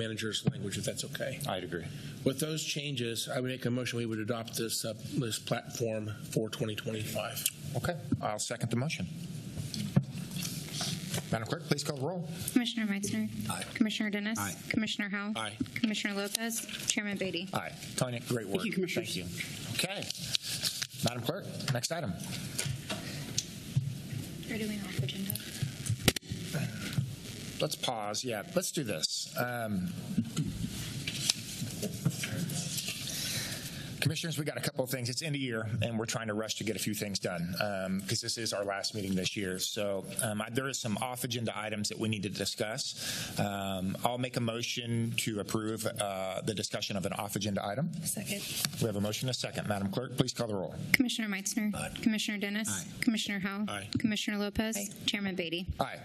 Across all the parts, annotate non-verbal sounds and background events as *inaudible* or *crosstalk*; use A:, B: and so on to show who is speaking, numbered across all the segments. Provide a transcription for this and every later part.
A: manager's language, if that's okay.
B: I'd agree.
A: With those changes, I would make a motion, we would adopt this, uh, this platform for 2025.
B: Okay, I'll second the motion. Madam Clerk, please call the roll.
C: Commissioner Meitzner.
B: Aye.
C: Commissioner Dennis.
B: Aye.
C: Commissioner Howell.
A: Aye.
C: Commissioner Lopez. Chairman Beatty.
B: Aye. Tanya, great work.
D: Thank you, Commissioners.
B: Thank you. Okay. Madam Clerk, next item.
C: Or do we off agenda?
B: Let's pause. Yeah, let's do this. Um, Commissioners, we got a couple of things. It's end of year, and we're trying to rush to get a few things done because this is our last meeting this year. So um, I, there is some off agenda items that we need to discuss. Um, I'll make a motion to approve uh, the discussion of an off agenda item.
E: Second.
B: We have a motion and a second. Madam Clerk, please call the roll.
C: Commissioner Meitzner. Commissioner Dennis. Commissioner Howell.
A: Aye.
C: Commissioner Lopez.
E: Aye.
C: Chairman Beatty.
B: Aye.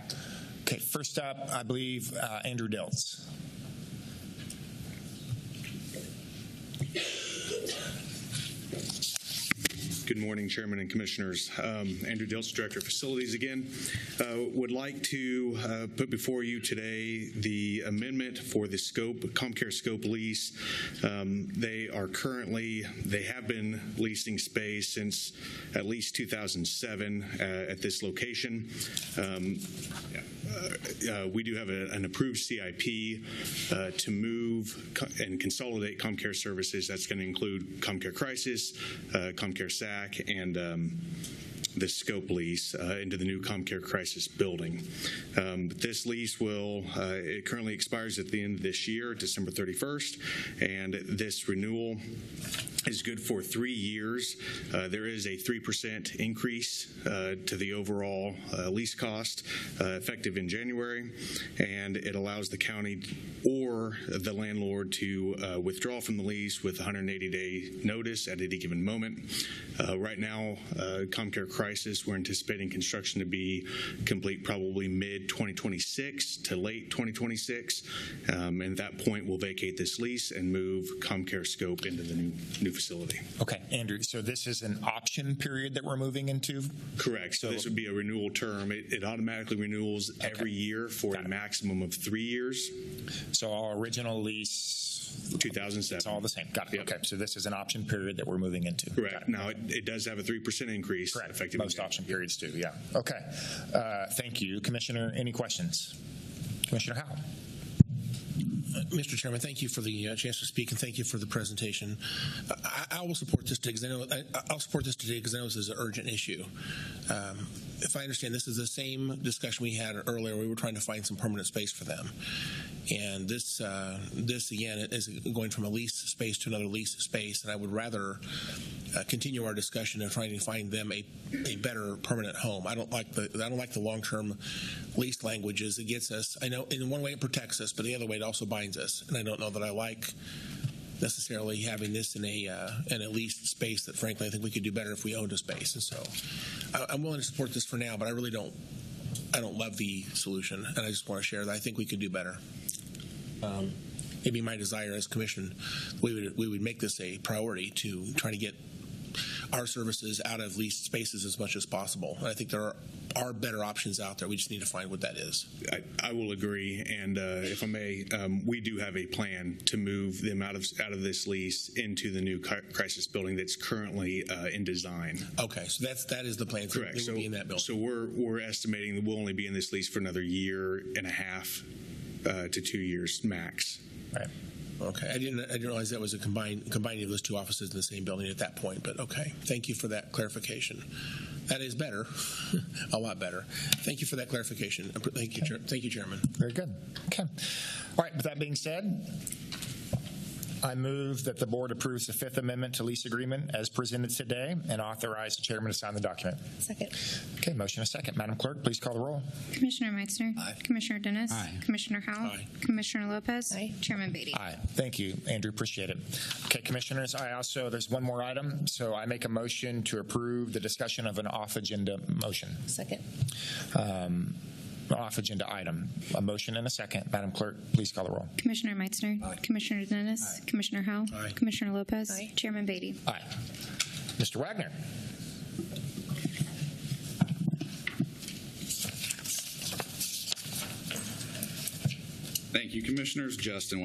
B: Okay, first up, I believe uh, Andrew Diltz.
F: Good morning, Chairman and Commissioners. Um, Andrew Diltz, Director of Facilities again. Uh, Would like to uh, put before you today the amendment for the scope, ComCare scope lease. Um, They are currently, they have been leasing space since at least 2007 uh, at this location. Um, uh, We do have a- an approved CIP uh, to move co- and consolidate ComCare services. That's going to include ComCare Crisis, uh, ComCare SAC, and um, the scope lease uh, into the new ComCare Crisis building. Um, This lease will, uh, it currently expires at the end of this year, December 31st, and this renewal is good for three years. Uh, There is a 3% increase uh, to the overall uh, lease cost uh, effective in January, and it allows the county or the landlord to uh, withdraw from the lease with 180-day notice at any given moment. Uh, Right now, uh, ComCare Crisis, we're anticipating construction to be complete probably mid-2026 to late 2026, Um, and at that point, we'll vacate this lease and move ComCare Scope into the new new facility.
B: Okay, Andrew, so this is an option period that we're moving into?
F: Correct. So this would be a renewal term. It it automatically renews every year for
B: Got
F: a
B: it.
F: maximum of three years,
B: So our original lease,
F: 2007.
B: it's all the same. Got it.
F: Yep.
B: Okay, so this is an option period that we're moving into. Got
F: Correct.
B: it.
F: Now, it it does have a 3% increase
B: Correct.
F: effective.
B: Most option periods do, yeah. Okay. Uh, Thank you. Commissioner, any questions? Commissioner Howell?
A: Mr. Uh, Chairman, thank you for the uh, chance to speak, and thank you for the presentation. I, I will support this today because I know I, I'll support this today because I know this is an urgent issue. Um, if I understand, this is the same discussion we had earlier. We were trying to find some permanent space for them, and this uh, this again is going from a lease space to another lease space. And I would rather uh, continue our discussion of trying to find them a, a better permanent home. I don't like the I don't like the long term lease languages. It gets us. I know in one way it protects us, but the other way it also binds us. And I don't know that I like necessarily having this in a uh, in a leased space. That frankly, I think we could do better if we owned a space. And so, I, I'm willing to support this for now, but I really don't. I don't love the solution, and I just want to share that I think we could do better. Um, it'd be my desire as commission, we would we would make this a priority to try to get our services out of leased spaces as much as possible. And I think there are, are better options out there. We just need to find what that is.
F: I- I will agree, and uh, if I may, um, we do have a plan to move them out of, out of this lease into the new cri- crisis building that's currently uh, in design.
A: Okay, so that's that is the plan. So
F: Correct.
A: They will
F: So,
A: be in that building.
F: so we're, we're estimating that we'll only be in this lease for another year and a half uh, to two years max.
B: All right.
A: okay, I didn't I didn't realize that was a combined combining of those two offices in the same building at that point. But okay, thank you for that clarification. That is better, *laughs* a lot better. Thank you for that clarification. Thank you, Chair- thank you, Chairman.
B: Very good. Okay. All right, with that being said, I move that the board approves the Fifth Amendment to lease agreement as presented today and authorize the chairman to sign the document.
E: Second.
B: Okay, motion a second. Madam Clerk, please call the roll.
C: Commissioner Meitzner. Commissioner Dennis. Commissioner Howell.
A: Aye.
C: Commissioner Lopez.
E: Aye.
C: Chairman Beatty.
B: Aye. Thank you, Andrew. Appreciate it. Okay, Commissioners, I also, there's one more item. So I make a motion to approve the discussion of an off-agenda motion,
E: Second.
B: um, off-agenda item. A motion and a second. Madam Clerk, please call the roll.
C: Commissioner Meitzner. Commissioner Dennis. Commissioner Howell.
A: Aye.
C: Commissioner Lopez.
E: Aye.
C: Chairman Beatty.
B: Aye. Mr. Wagner?
G: Thank you, Commissioners. Justin